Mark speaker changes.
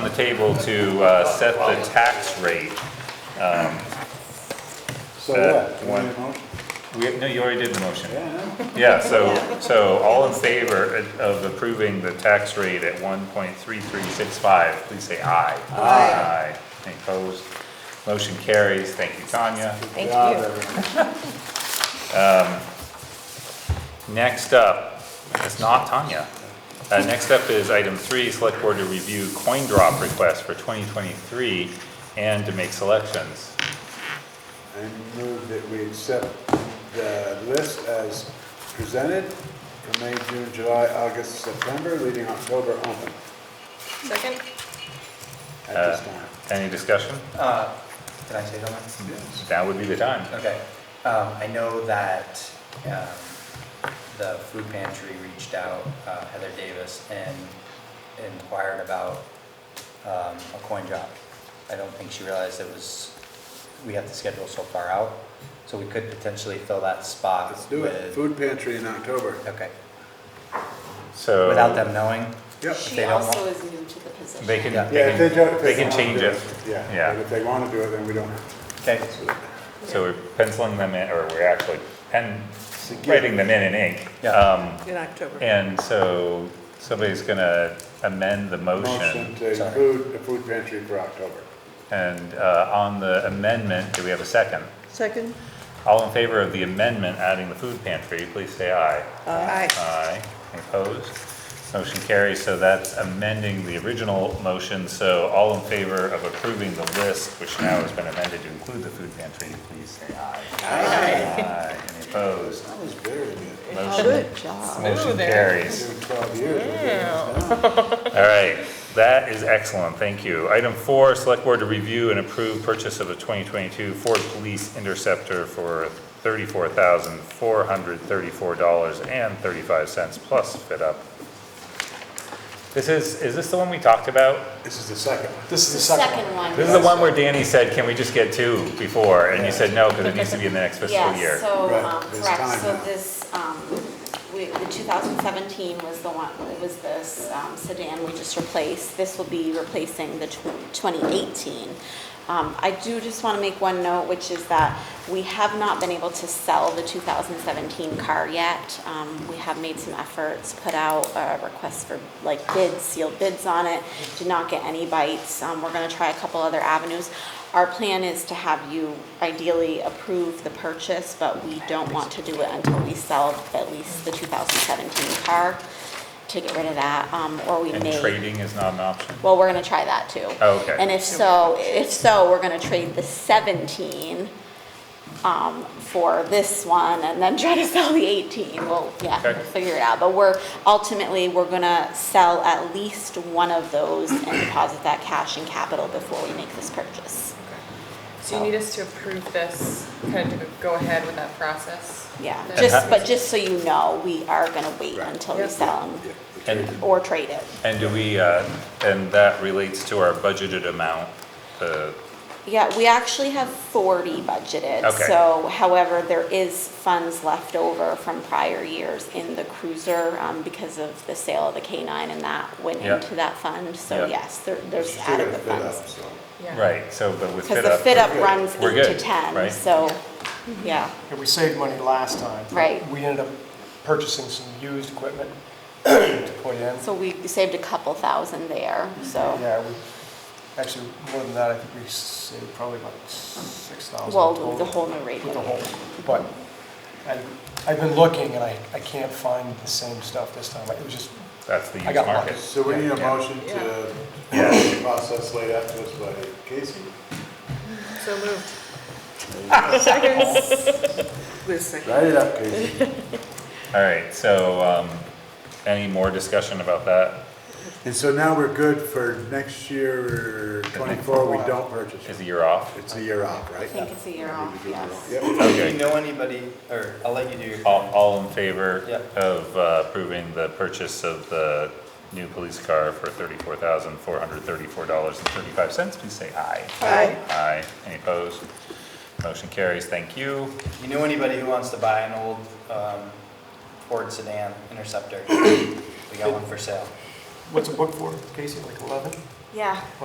Speaker 1: the table to uh, set the tax rate.
Speaker 2: So
Speaker 1: That
Speaker 2: what? Do you
Speaker 1: one.
Speaker 2: need a motion?
Speaker 1: We, no, you already did the motion.
Speaker 2: Yeah, I know.
Speaker 1: Yeah, so, so all in favor of approving the tax rate at one point three three six five, please say aye.
Speaker 3: Aye.
Speaker 1: Aye. Any opposed? Motion carries. Thank you, Tanya.
Speaker 3: Thank
Speaker 2: Job,
Speaker 3: you.
Speaker 2: everyone.
Speaker 1: Next up, it's not Tanya. Uh, next up is item three, select board to review coin drop request for twenty twenty-three and to make selections.
Speaker 2: I move that we accept the list as presented for May, June, July, August, September, leaving October open
Speaker 3: Second?
Speaker 2: at
Speaker 1: Uh,
Speaker 2: this time.
Speaker 1: Any discussion?
Speaker 4: Uh, Did I say something?
Speaker 2: Yes.
Speaker 1: That would be the time.
Speaker 4: Okay. Um, I know that um, the food pantry reached out, uh, Heather Davis, and inquired about um, a coin drop. I don't think she realized it was, we have to schedule so far out, so we could potentially fill that spot
Speaker 2: Let's do it.
Speaker 4: with.
Speaker 2: Food pantry in October.
Speaker 4: Okay,
Speaker 1: So.
Speaker 4: without them knowing.
Speaker 2: Yep.
Speaker 4: they
Speaker 5: She
Speaker 4: don't
Speaker 5: also
Speaker 4: want-
Speaker 5: is new to the position.
Speaker 1: They can,
Speaker 4: Yeah.
Speaker 2: Yeah,
Speaker 1: they
Speaker 2: if they don't-
Speaker 1: can,
Speaker 2: if
Speaker 1: they
Speaker 2: don't
Speaker 1: can
Speaker 2: wanna
Speaker 1: change
Speaker 2: do
Speaker 1: it.
Speaker 2: Yeah,
Speaker 1: Yeah.
Speaker 2: but if they want to do it, then we don't have to.
Speaker 4: Okay,
Speaker 1: So we're penciling them in, or we're actually pen,
Speaker 2: good-
Speaker 1: writing them in in ink.
Speaker 4: Yeah.
Speaker 1: Um,
Speaker 3: In October.
Speaker 1: and so somebody's gonna amend the
Speaker 2: Motion
Speaker 1: motion.
Speaker 2: to
Speaker 4: Sorry.
Speaker 2: include the food pantry for October.
Speaker 1: And, uh, on the amendment, do we have a second?
Speaker 3: Second?
Speaker 1: All in favor of the amendment adding the food pantry, please say aye.
Speaker 5: Uh,
Speaker 3: Aye.
Speaker 1: Aye. Any Opposed? Motion carries, so that's amending the original motion, so all in favor of approving the list, which now has been amended to include the food pantry, please say aye. Aye. Any opposed?
Speaker 2: That was very good.
Speaker 1: Motion,
Speaker 3: Good job.
Speaker 1: motion carries.
Speaker 2: Doing twelve years. we're doing this now.
Speaker 1: All right, that is excellent, thank you. Item four, select board to review and approve purchase of a 2022 Ford Police Interceptor for $34,434.35 plus fit up. This is, is this the one we talked about?
Speaker 2: This is the second one.
Speaker 6: This is the second
Speaker 5: Second
Speaker 6: one.
Speaker 5: one.
Speaker 1: This is the one where Danny said, can we just get two before? And you said no, because it needs to be in the next fiscal year.
Speaker 5: Yes, so,
Speaker 2: Right,
Speaker 5: um,
Speaker 2: there's
Speaker 5: correct,
Speaker 2: time
Speaker 5: so
Speaker 2: now.
Speaker 5: this, um, we, the two thousand seventeen was the one, it was this um, sedan we just replaced. This will be replacing the twenty eighteen. Um, I do just wanna make one note, which is that we have not been able to sell the two thousand seventeen car yet. Um, we have made some efforts, put out a request for like bids, sealed bids on it, did not get any bites. Um, we're gonna try a couple other avenues. Our plan is to have you ideally approve the purchase, but we don't want to do it until we sell at least the 2017 car to get rid of that, um, or we
Speaker 1: And
Speaker 5: may.
Speaker 1: trading is not an option?
Speaker 5: Well, we're gonna try that too.
Speaker 1: Oh, okay.
Speaker 5: And if so, if so, we're gonna trade the 17 um, for this one and then try to sell the 18. Well, yeah, we'll
Speaker 1: Okay.
Speaker 5: figure it out. But we're, ultimately, we're gonna sell at least one of those and deposit that cash in capital before we make this purchase.
Speaker 7: So you need us to approve this, kind of go ahead with that process?
Speaker 5: Yeah,
Speaker 7: That-
Speaker 5: just, but just so you know, we are gonna wait
Speaker 2: Right.
Speaker 5: until we
Speaker 7: Yep.
Speaker 5: sell
Speaker 2: Yeah,
Speaker 5: them
Speaker 2: the
Speaker 1: And-
Speaker 2: trade.
Speaker 5: or trade it.
Speaker 1: And do we, uh, and that relates to our budgeted amount, uh,
Speaker 5: Yeah, we actually have forty budgeted,
Speaker 1: Okay.
Speaker 5: so however, there is funds left over from prior years in the cruiser, um, because of the sale of the K nine and that went
Speaker 1: Yeah.
Speaker 5: into that fund, so
Speaker 1: Yeah.
Speaker 5: yes, there, there's
Speaker 2: Still gotta
Speaker 5: adequate
Speaker 2: fit up,
Speaker 5: funds.
Speaker 2: so.
Speaker 7: Yeah.
Speaker 1: right, so, but with
Speaker 5: Cause
Speaker 1: fit
Speaker 5: the
Speaker 1: up.
Speaker 5: fit up runs
Speaker 1: We're
Speaker 5: eight to
Speaker 1: good,
Speaker 5: ten,
Speaker 1: right?
Speaker 5: so, yeah,
Speaker 6: And we saved money last time.
Speaker 5: Right.
Speaker 6: We ended up purchasing some used equipment to put in.
Speaker 5: so we saved a couple thousand there, so.
Speaker 6: Yeah, we, actually, more than that, I think we saved probably about six thousand.
Speaker 5: Well, with the whole new radio.
Speaker 6: With the whole, but I, I've been looking and I, I can't find the same stuff this time. It was just,
Speaker 1: That's the
Speaker 6: I
Speaker 1: used
Speaker 6: got one.
Speaker 1: market.
Speaker 2: So we need a
Speaker 6: Yeah.
Speaker 2: motion to the process laid out to us by Casey.
Speaker 7: So moved.
Speaker 3: Listen.
Speaker 2: Write it up, Casey.
Speaker 1: All right, so, um, any more discussion about that?
Speaker 2: And so now we're good for next year, twenty-four, we don't
Speaker 1: Is
Speaker 2: purchase.
Speaker 1: a year off?
Speaker 2: It's a year off,
Speaker 5: I
Speaker 2: right?
Speaker 5: think it's a year off, yes.
Speaker 2: Yep.
Speaker 4: If
Speaker 1: Okay.
Speaker 4: you know anybody, or I'll let you do your.
Speaker 1: All, all in favor
Speaker 4: Yep.
Speaker 1: of uh, approving the purchase of the new police car for thirty-four thousand, four hundred thirty-four dollars and thirty-five cents, please say aye.
Speaker 3: Aye.
Speaker 1: Aye, any opposed? Motion carries, thank you.
Speaker 4: You know anybody who wants to buy an old um, Ford sedan Interceptor? We got one for sale.
Speaker 6: what's a book for, Casey, like eleven?
Speaker 5: Yeah,